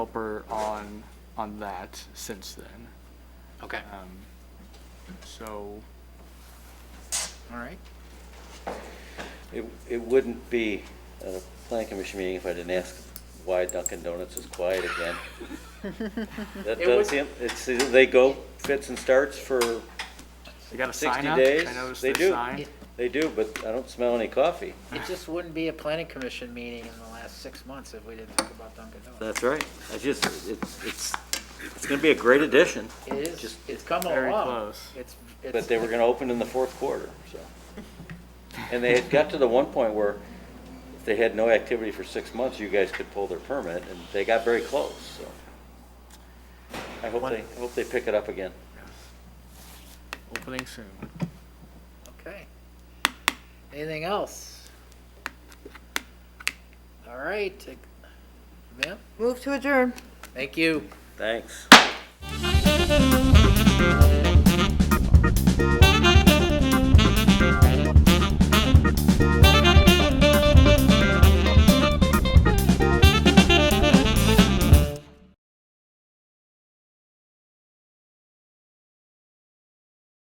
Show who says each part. Speaker 1: developer on, on that since then.
Speaker 2: Okay,
Speaker 1: Um, So,
Speaker 2: Uh, all right.
Speaker 3: It, it wouldn't be a planning commission meeting if I didn't ask why Dunkin' Donuts is quiet again. That
Speaker 2: It
Speaker 3: does
Speaker 2: was-
Speaker 3: seem, it's, they go fits and starts for,
Speaker 1: they got a
Speaker 3: 60
Speaker 1: sign up.
Speaker 3: days,
Speaker 1: I noticed
Speaker 3: they
Speaker 1: their
Speaker 3: do.
Speaker 1: sign.
Speaker 2: It
Speaker 3: they do, but I don't smell any coffee.
Speaker 2: it just wouldn't be a planning commission meeting in the last six months if we didn't talk about Dunkin' Donuts.
Speaker 3: That's right. I just, it's, it's, it's gonna be a great addition,
Speaker 2: It is,
Speaker 3: just-
Speaker 2: it's come
Speaker 1: very
Speaker 2: along.
Speaker 1: close.
Speaker 2: It's,
Speaker 3: but
Speaker 2: it's,
Speaker 3: they were gonna open in the fourth quarter, so. And they had got to the one point where if they had no activity for six months, you guys could pull their permit, and they got very close, so. I hope they, I hope they pick it up again.
Speaker 1: Opening soon.
Speaker 2: okay. Anything else? All right, take- ma'am,
Speaker 4: Move to adjourn.
Speaker 2: thank you.
Speaker 3: Thanks.